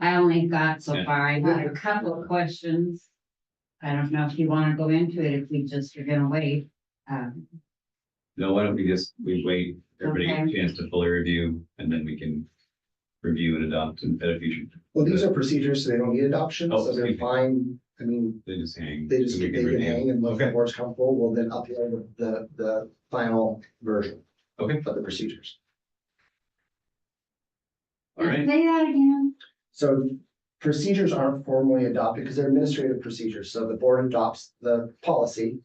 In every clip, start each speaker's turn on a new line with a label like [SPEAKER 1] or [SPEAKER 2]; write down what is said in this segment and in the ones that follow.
[SPEAKER 1] I only got so
[SPEAKER 2] Yeah.
[SPEAKER 1] far. I got a couple of questions. I don't know if you wanna go into it, if we just are gonna wait. Um,
[SPEAKER 2] No, why don't we just, we wait, everybody get a
[SPEAKER 1] Okay.
[SPEAKER 2] chance to fully review, and then we can review and adopt and at a future,
[SPEAKER 3] Well, these are procedures, so they don't need adoption,
[SPEAKER 2] Oh,
[SPEAKER 3] so they're
[SPEAKER 2] excuse me.
[SPEAKER 3] fine. I mean,
[SPEAKER 2] they just hang.
[SPEAKER 3] they just,
[SPEAKER 2] and
[SPEAKER 3] they
[SPEAKER 2] we can
[SPEAKER 3] can
[SPEAKER 2] review.
[SPEAKER 3] hang and if the
[SPEAKER 2] Okay.
[SPEAKER 3] board's comfortable, we'll then upload the, the final version
[SPEAKER 2] Okay,
[SPEAKER 3] of the procedures.
[SPEAKER 2] all right,
[SPEAKER 1] Say that again.
[SPEAKER 3] So procedures aren't formally adopted because they're administrative procedures. So the board adopts the policy.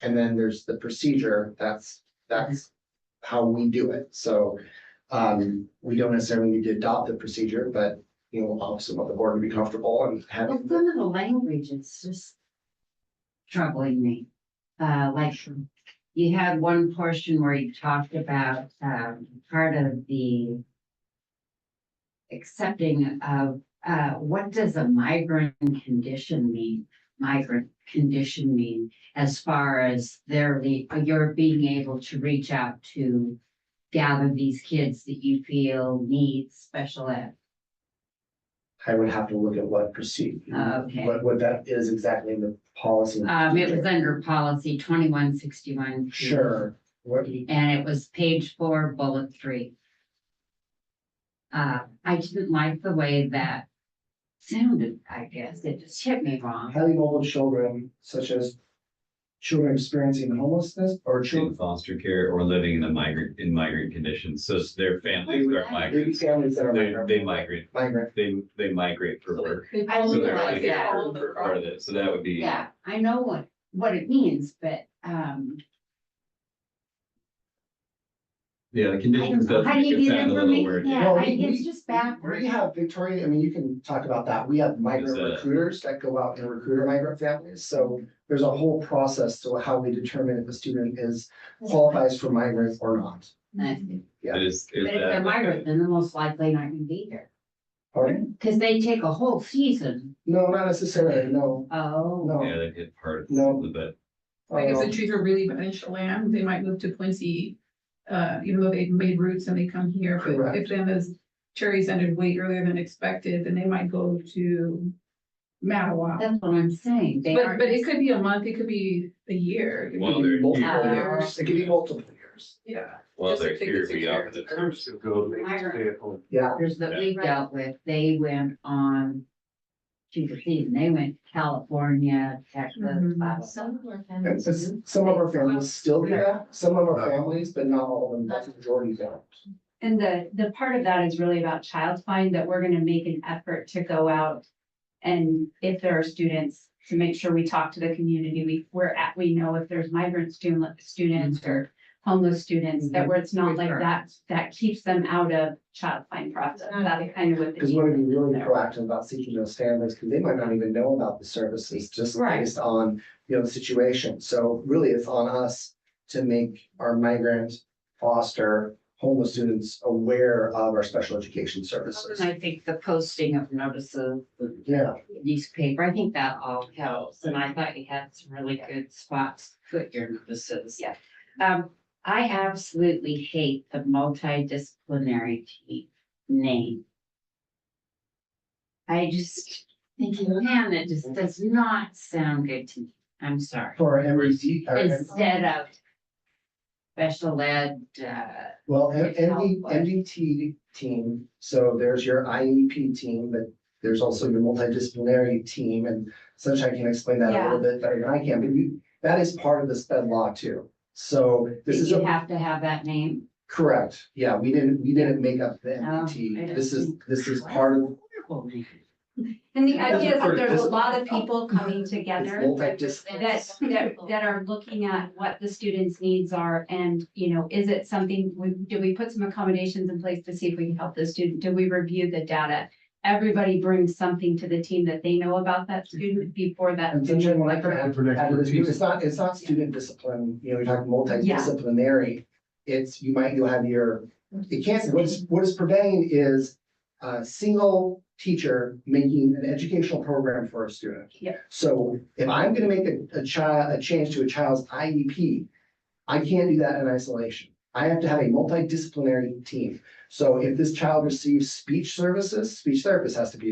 [SPEAKER 3] And then there's the procedure. That's, that's how we do it. So um, we don't necessarily need to adopt the procedure, but you know, obviously want the board to be comfortable and have.
[SPEAKER 1] Well, some of the language is just troubling me. Uh, like, you had one portion where you talked about, um, part of the accepting of, uh, what does a migrant condition mean? Migrant condition mean as far as their, le- your being able to reach out to gather these kids that you feel need special ed.
[SPEAKER 3] I would have to look at what proceed.
[SPEAKER 1] Oh, Okay.
[SPEAKER 3] What, what that is exactly in the policy.
[SPEAKER 1] Um, it was under policy twenty-one sixty-one.
[SPEAKER 3] Sure, what,
[SPEAKER 1] And it was page four, bullet three. Uh, I didn't like the way that sounded, I guess. It just hit me wrong.
[SPEAKER 3] highly mobile children such as children experiencing homelessness or
[SPEAKER 2] in
[SPEAKER 3] children.
[SPEAKER 2] foster care or living in a migrant, in migrant conditions, so their families are
[SPEAKER 3] Maybe
[SPEAKER 2] migrants,
[SPEAKER 3] families that are
[SPEAKER 2] they,
[SPEAKER 3] migrant.
[SPEAKER 2] they migrant,
[SPEAKER 3] Migrant,
[SPEAKER 2] they, they migrate for work.
[SPEAKER 1] I
[SPEAKER 2] So
[SPEAKER 1] don't
[SPEAKER 2] they're
[SPEAKER 1] like that.
[SPEAKER 2] migrant for part of it, so that would be.
[SPEAKER 1] Yeah, I know what, what it means, but, um,
[SPEAKER 2] Yeah, the
[SPEAKER 1] I don't
[SPEAKER 2] conditions
[SPEAKER 1] know.
[SPEAKER 2] does
[SPEAKER 1] How do
[SPEAKER 2] make
[SPEAKER 1] you
[SPEAKER 2] it
[SPEAKER 1] get
[SPEAKER 2] sound a little
[SPEAKER 1] information?
[SPEAKER 2] weird.
[SPEAKER 1] Yeah,
[SPEAKER 3] Well,
[SPEAKER 1] I-
[SPEAKER 3] we-
[SPEAKER 1] it's just
[SPEAKER 3] we
[SPEAKER 1] backwards.
[SPEAKER 3] have Victoria, I mean, you can talk about that. We have migrant
[SPEAKER 2] Is, uh,
[SPEAKER 3] recruiters that go out and recruit migrant families, so there's a whole process to how we determine if a student is qualifies for migrants or not.
[SPEAKER 1] But
[SPEAKER 2] It is.
[SPEAKER 1] if they're migrant, then they're most likely not gonna be here.
[SPEAKER 3] Pardon?
[SPEAKER 1] Cause they take a whole season.
[SPEAKER 3] No, not necessarily, no,
[SPEAKER 1] Oh.
[SPEAKER 2] Yeah,
[SPEAKER 3] no.
[SPEAKER 2] they hit part
[SPEAKER 3] No.
[SPEAKER 2] of it.
[SPEAKER 4] Like if
[SPEAKER 3] Uh,
[SPEAKER 4] the trees are really beneficial land, they might move to Quincy, uh, even though they've made roots and they come here. But
[SPEAKER 3] Correct.
[SPEAKER 4] if then those cherries ended way earlier than expected, then they might go to Madawa.
[SPEAKER 1] That's what I'm saying. They
[SPEAKER 4] But,
[SPEAKER 1] are,
[SPEAKER 4] but it could be a month, it could be a year. it could
[SPEAKER 2] Well,
[SPEAKER 4] be-
[SPEAKER 2] they're
[SPEAKER 3] Multiple
[SPEAKER 2] here,
[SPEAKER 3] years, it could be multiple years.
[SPEAKER 4] Yeah.
[SPEAKER 2] well,
[SPEAKER 4] Just
[SPEAKER 2] they're
[SPEAKER 4] like they
[SPEAKER 2] here,
[SPEAKER 4] could
[SPEAKER 2] we
[SPEAKER 4] take
[SPEAKER 2] offer
[SPEAKER 4] care
[SPEAKER 2] the terms.
[SPEAKER 3] Yeah,
[SPEAKER 1] others that we dealt with, they went on to the season. They went to California, Texas,
[SPEAKER 4] Mhm.
[SPEAKER 1] blah, blah, blah.
[SPEAKER 5] Some of our
[SPEAKER 3] and
[SPEAKER 5] families.
[SPEAKER 3] s-
[SPEAKER 5] do.
[SPEAKER 3] some of our families still do that, some of our families, but not all of them, that's the majority don't.
[SPEAKER 5] And the, the part of that is really about child find, that we're gonna make an effort to go out. And if there are students, to make sure we talk to the community, we, we're at, we know if there's migrant student, students or homeless students, that where it's not like that, that keeps them out of child find process, that's kind of what. the
[SPEAKER 3] Because we want to be
[SPEAKER 5] need is
[SPEAKER 3] really
[SPEAKER 5] there.
[SPEAKER 3] proactive about seeking those families, because they might not even know about the services, just
[SPEAKER 5] Right.
[SPEAKER 3] based on, you know, the situation. So really, it's on us to make our migrant, foster, homeless students aware of our special education services.
[SPEAKER 1] And I think the posting of notices, the
[SPEAKER 3] Yeah,
[SPEAKER 1] newspaper, I think that all helps. And I thought you had some really good spots to put your notices.
[SPEAKER 5] Yeah.
[SPEAKER 1] Um, I absolutely hate the multidisciplinary team name. I just think, man, that just does not sound good to me. I'm sorry.
[SPEAKER 3] for MDD, or-
[SPEAKER 1] Instead of special ed, uh,
[SPEAKER 3] well, M-
[SPEAKER 1] It's
[SPEAKER 3] MD,
[SPEAKER 1] helpful.
[SPEAKER 3] MDT team, so there's your IEP team, but there's also your multidisciplinary team, and Sunshine can explain that a little bit better than I can, but you, that is part of the sped law too. So this
[SPEAKER 1] did
[SPEAKER 3] is
[SPEAKER 1] you
[SPEAKER 3] a
[SPEAKER 1] have to have that name?
[SPEAKER 3] Correct, yeah, we didn't, we didn't make up the
[SPEAKER 1] Oh, I
[SPEAKER 3] MDT, this is,
[SPEAKER 1] didn't.
[SPEAKER 3] this is part of,
[SPEAKER 1] Wonderful name.
[SPEAKER 5] And the idea is that
[SPEAKER 3] This-
[SPEAKER 5] there's a lot of people coming together.
[SPEAKER 3] It's multidis-
[SPEAKER 5] that, that, that are looking at what the students' needs are and, you know, is it something, we, do we put some accommodations in place to see if we can help the student? Do we review the data? Everybody brings something to the team that they know about that student before that.
[SPEAKER 3] and
[SPEAKER 5] student
[SPEAKER 3] Sunshine, when I can add,
[SPEAKER 6] Effort
[SPEAKER 3] add to this, too,
[SPEAKER 6] expertise.
[SPEAKER 3] it's not, it's not student discipline, you know, you're talking multidisciplinary. It's, you might, you'll have your, it can't, what is, what is preventing is a single teacher making an educational program for a student.
[SPEAKER 5] Yeah.
[SPEAKER 3] So if I'm gonna make a, a child, a change to a child's IEP, I can't do that in isolation. I have to have a multidisciplinary team. So if this child receives speech services, speech therapist has to be there.